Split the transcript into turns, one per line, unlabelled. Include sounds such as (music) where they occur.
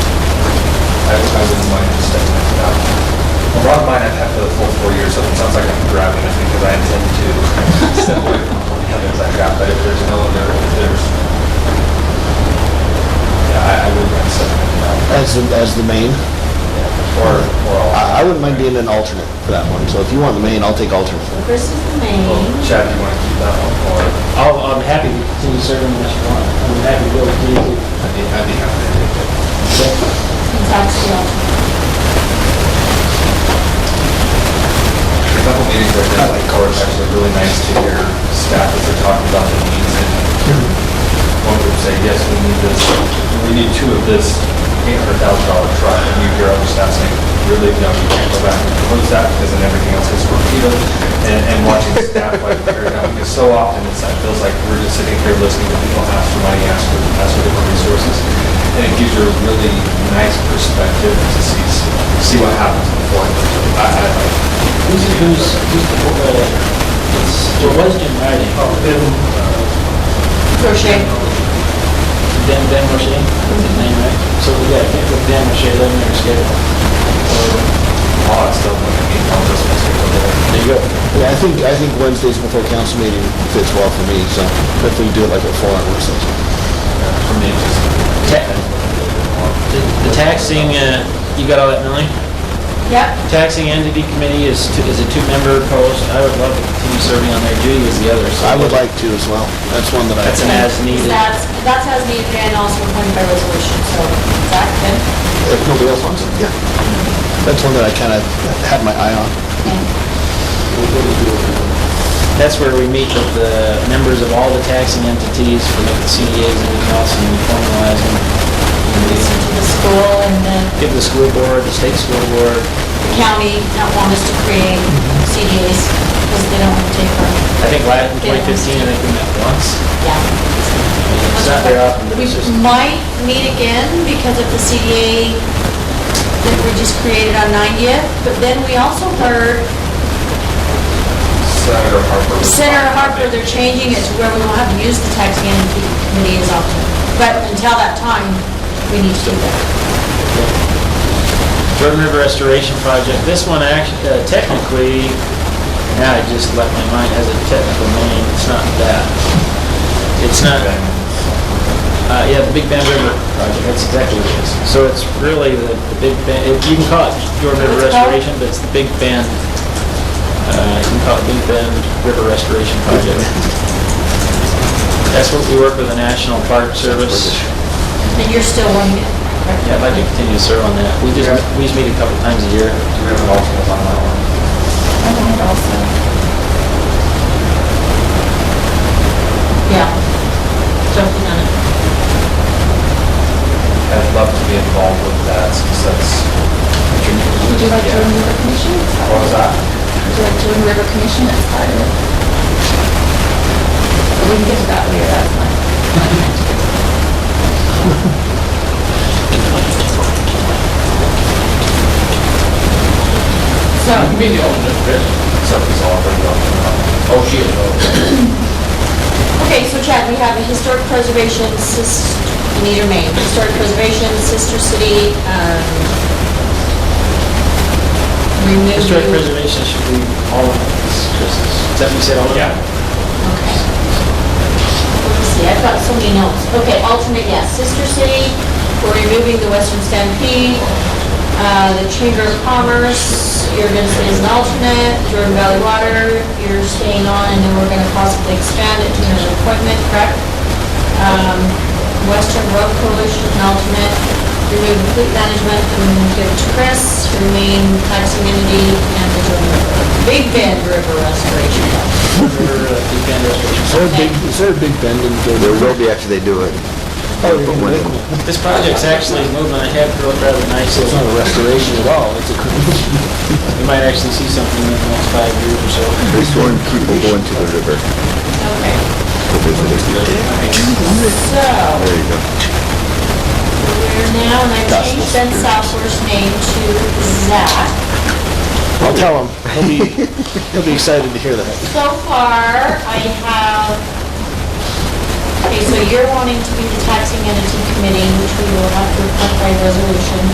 a lot of mine I've had for the full four years, so it sounds like I'm grabbing it because I intend to step away from all the others I've got, but if there's no other, if there's, yeah, I, I would like to step in now,
as, the- as the main.
or, or I'll,
I, I wouldn't mind being an alternate for that one, so if you want the main, I'll take alternate.
Chris is the
Oh.
main.
Chad, do you want to keep that one, or
I'll, I'm happy to continue serving unless you want. I'm happy to go with you.
I'd be, I'd be happy to take it.
That's the alternate.
A couple meetings like that, like, or it's actually really nice to hear staff as they're talking about the needs and one group say, yes, we need this, we need two of this eight hundred thousand dollar truck, and you hear other staff saying, really, no, you can't go back and propose that because then everything else gets torpedoed. And, and watching staff like tear down, because so often it's, it feels like we're just sitting here listening to people ask for money, ask for, ask for different resources. And it gives you a really nice perspective to see, see what happens before. I, I,
Who's, who's, who's the, uh, it's, there was Jim Riley. Oh, Ben.
Crochet.
Ben, Ben Roche, that's his name, right? So, yeah, I think with Ben Roche, let me reschedule.
Well, it's still going to be on this one.
There you go.
Yeah, I think, I think Wednesday's before council meeting fits well for me, so if we do it like a four-hour work session.
For me, it's just.
Ta- The the taxing, uh, you got all that, Melanie?
Yep,
Taxing Entity Committee is, two- is a two-member post. I would love to continue serving on there. Judy is the other, so.
I would like to as well. That's one that I.
That's an as needed.
that's, that's as needed and also appointed by resolution, so Zach, good.
If nobody else wants it, yeah. That's one that I kind of had my eye on.
That's where we meet with the members of all the taxing entities, we look at CDAs and everything else, and we formalize them. And we
Listen to the school and then
Give the school board, the state school board,
the county not want us to create CDAs because they don't want to take our,
I think last, in 2015, I think we met once.
yeah.
It's not very often, but
We
it's just,
might meet again because of the CDA that we just created on 90th, but then we also heard
Senator Harper. was-
Senator Harper, they're changing it to where we won't have to use the taxing entity committee as often. But until that time, we need to do that.
Jordan River Restoration Project, this one actually, technically, now I just left my mind, has a technical name, it's not that. It's not, Uh, yeah, the Big Bend River project, that's exactly what it is. So it's really the, the Big Bend, it- you can call it Jordan River
What's it called?
Restoration, but it's the Big Bend, uh, you can call it Big Bend River Restoration Project. That's what we work with the National Park Service.
And you're still wanting it.
Yeah, I'd like to continue to serve on that. We just, we just meet a couple times a year.
Do we have an alternate on that one?
Yeah. Jumping on it.
I'd love to be involved with that since that's.
Would you like to remove a commission?
What was that?
Would you like to remove a commission as part of it? But We can get to that later, that's fine.
So,
Except he's already on. Oh, she is.
okay, so Chad, we have a historic preservation, sis, you need your name, historic preservation, sister city, um, remove.
Historic preservation should be all of us, Chris. Is that what you said, all of them?
Yeah.
Okay. Let's see, I've got so many notes. Okay, alternate, yes, Sister City, we're removing the Western Stampede, uh, the Chamber of Commerce, you're gonna stay as an alternate, Jordan Valley Water, you're staying on, and then we're gonna possibly expand it to another appointment, correct? Um, Western Road Coalition, an alternate, remove fleet management, and give it to Chris, remain tax immunity, and the Jordan River, Big Bend River Restoration Project.
River, uh, Big Bend Restoration.
Is there a big, is there a big bend in the? There will be after they do it. Oh, you're gonna do it.
This project's actually moving ahead rather nicely.
it's not a restoration at all, it's a creation.
We might actually see something in the next five years or so.
restoring people going to the river
Okay.
for visitors.
So,
There you go.
we're now, and I changed Ben Southworth's name to Zach.
I'll (laughs) tell him. He'll be, he'll be excited to hear that.
So far, I have, okay, so you're wanting to be the taxing entity committee, which we will have to appoint by resolution.